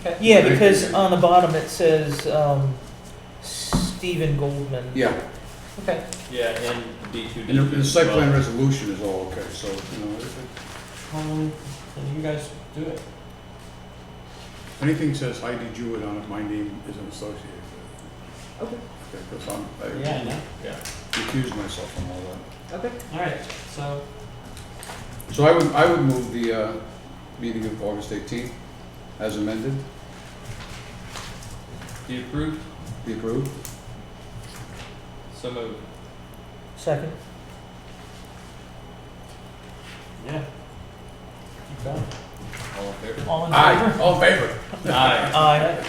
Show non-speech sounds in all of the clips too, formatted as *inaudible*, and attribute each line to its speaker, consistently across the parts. Speaker 1: Okay.
Speaker 2: Yeah, because on the bottom it says, um, Stephen Goldman.
Speaker 3: Yeah,
Speaker 1: Okay.
Speaker 4: Yeah, and D two, D
Speaker 3: and the-
Speaker 4: two.
Speaker 3: the site plan resolution is all okay, so, you know, if-
Speaker 1: Um, then you guys do it.
Speaker 3: if anything says Heidi Jewett on it, my name isn't associated with
Speaker 1: Okay.
Speaker 3: it. Because I'm, I
Speaker 1: Yeah, I know.
Speaker 3: recuse myself from all that.
Speaker 1: Okay. All right. So
Speaker 3: So I would, I would move the, uh, meeting of August eighteenth as amended,
Speaker 4: Do you approve?
Speaker 3: be approved.
Speaker 4: So moved.
Speaker 2: Second.
Speaker 1: yeah. Keep going.
Speaker 4: All in
Speaker 5: *laughs*
Speaker 4: favor?
Speaker 2: All in
Speaker 3: Aye,
Speaker 2: favor?
Speaker 3: all in favor?
Speaker 4: Aye.
Speaker 2: Aye.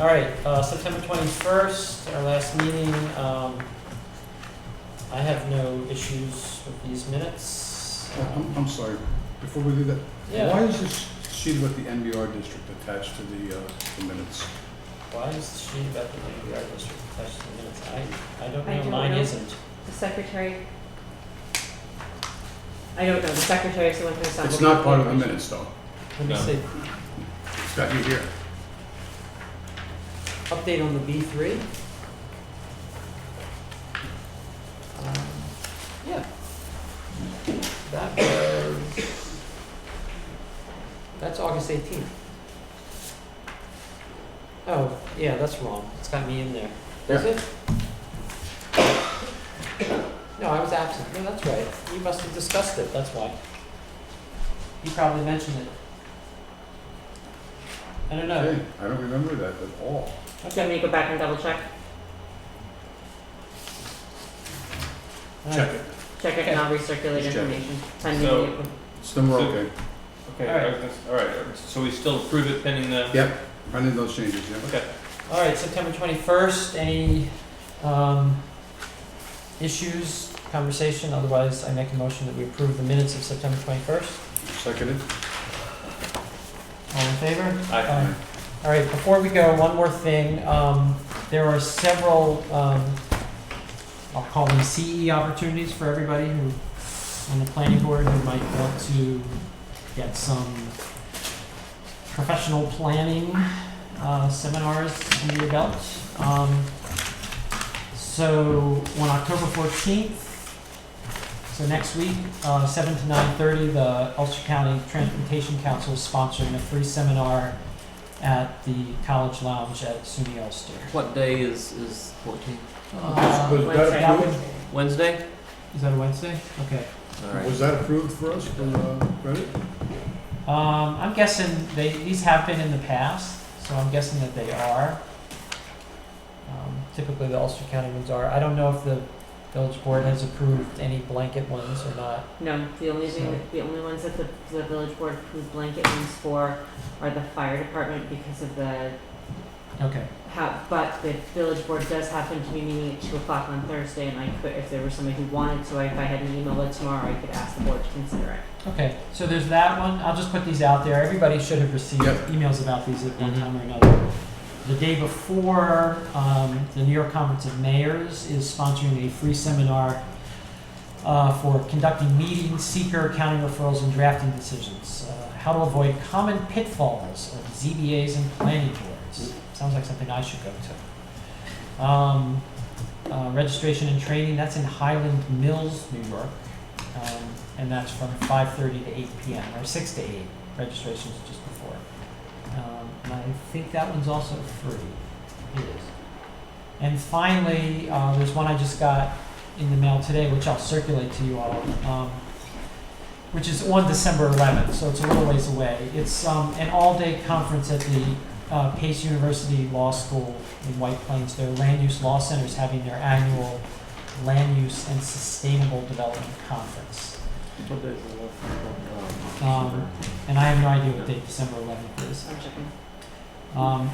Speaker 1: All right, uh, September twenty-first, our last meeting, um, I have no issues with these minutes.
Speaker 3: I'm, I'm sorry, before we do that,
Speaker 1: Yeah,
Speaker 3: why is this sheet about the NBR district attached to the, uh, the minutes?
Speaker 1: why is she about the NPR district attached to the minutes? I, I don't
Speaker 6: I
Speaker 1: know,
Speaker 6: don't
Speaker 1: mine
Speaker 6: know.
Speaker 1: isn't.
Speaker 6: The secretary, I don't know, the secretary is the one who signed.
Speaker 3: It's not part of the minutes, though.
Speaker 2: Let me
Speaker 4: No.
Speaker 2: see.
Speaker 3: It's got you here.
Speaker 1: Update on the B three? Yeah. That was, that's August eighteenth. Oh, yeah, that's wrong. It's got me in there. Is it? No, I was absent. No, that's right. You must have discussed it, that's why. You probably mentioned it. I don't know.
Speaker 3: Hey, I don't remember that at all.
Speaker 6: Do you want me to go back and double check?
Speaker 3: Check it.
Speaker 6: Check it and I'll recirculate
Speaker 3: Just check.
Speaker 6: information pending
Speaker 4: So-
Speaker 6: the approval.
Speaker 3: It's number
Speaker 4: So-
Speaker 3: okay.
Speaker 4: Okay,
Speaker 1: All right.
Speaker 4: everything's- all right, so we still approve it pending the?
Speaker 3: Yep, I need those changes, yeah.
Speaker 1: All right, September twenty-first, any, um, issues, conversation, otherwise I make a motion that we approve the minutes of September twenty-first.
Speaker 3: Seconded?
Speaker 1: All in favor?
Speaker 4: Aye.
Speaker 1: Aye. All right, before we go, one more thing, um, there are several, um, I'll call them CE opportunities for everybody who, on the planning board, who might want to get some professional planning, uh, seminars under your belt. Um, so on October fourteenth, so next week, uh, seven to nine thirty, the Ulster County Transportation Council is sponsoring a free seminar at the College Lounge at SUNY Ulster.
Speaker 5: What day is is 14?
Speaker 1: Uh,
Speaker 3: Was that
Speaker 1: that
Speaker 3: approved,
Speaker 1: would-
Speaker 5: Wednesday?
Speaker 1: is that a Wednesday? Okay.
Speaker 5: All right.
Speaker 3: was that approved for us for, uh, credit?
Speaker 1: Um, I'm guessing they, these have been in the past, so I'm guessing that they are. Um, typically the Ulster County ones are. I don't know if the village board has approved any blanket ones or not.
Speaker 6: No, the only thing,
Speaker 1: So-
Speaker 6: that- the only ones that the, the village board approved blanket ones for are the fire department because of the,
Speaker 1: Okay.
Speaker 6: how, but the village board does happen to be meeting at two o'clock on Thursday and I could, if there was somebody who wanted to, if I had an email it tomorrow, I could ask the board to consider it.
Speaker 1: Okay, so there's that one. I'll just put these out there. Everybody should have received
Speaker 3: Yep.
Speaker 1: emails about these at one
Speaker 5: Mhm.
Speaker 1: time or another. The day before, um, the New York Conference of Mayors is sponsoring a free seminar uh, for conducting meetings, seeker, county referrals, and drafting decisions. Uh, how to avoid common pitfalls of ZBAs and planning boards. Sounds like something I should go to. Um, uh, registration and training, that's in Highland Mills, New York. Um, and that's from five thirty to eight PM, or six to eight, registration's just before. Um, and I think that one's also free, it is. And finally, uh, there's one I just got in the mail today, which I'll circulate to you all, um, which is on December eleventh, so it's a little ways away. It's, um, an all-day conference at the, uh, Pace University Law School in White Plains. Their land use law center is having their annual Land Use and Sustainable Development Conference.
Speaker 5: What day is the last one?
Speaker 1: Um, and I have no idea what date December 11th is.
Speaker 6: I'm checking.
Speaker 1: Um,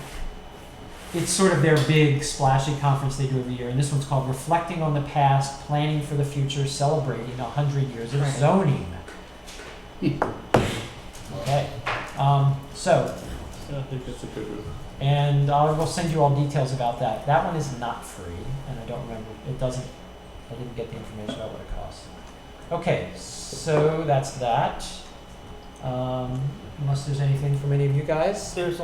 Speaker 1: it's sort of their big splashy conference they do every year, and this one's called Reflecting on the Past, Planning for the Future, Celebrating 100 Years of
Speaker 6: Right.
Speaker 1: Zoning. okay. Um, so,
Speaker 4: I think that's a good one.
Speaker 1: and I will send you all details about that. That one is not free, and I don't remember. It doesn't. I didn't get the information about what it costs. Okay, so that's that. Um, unless there's anything from any of you guys.
Speaker 2: There's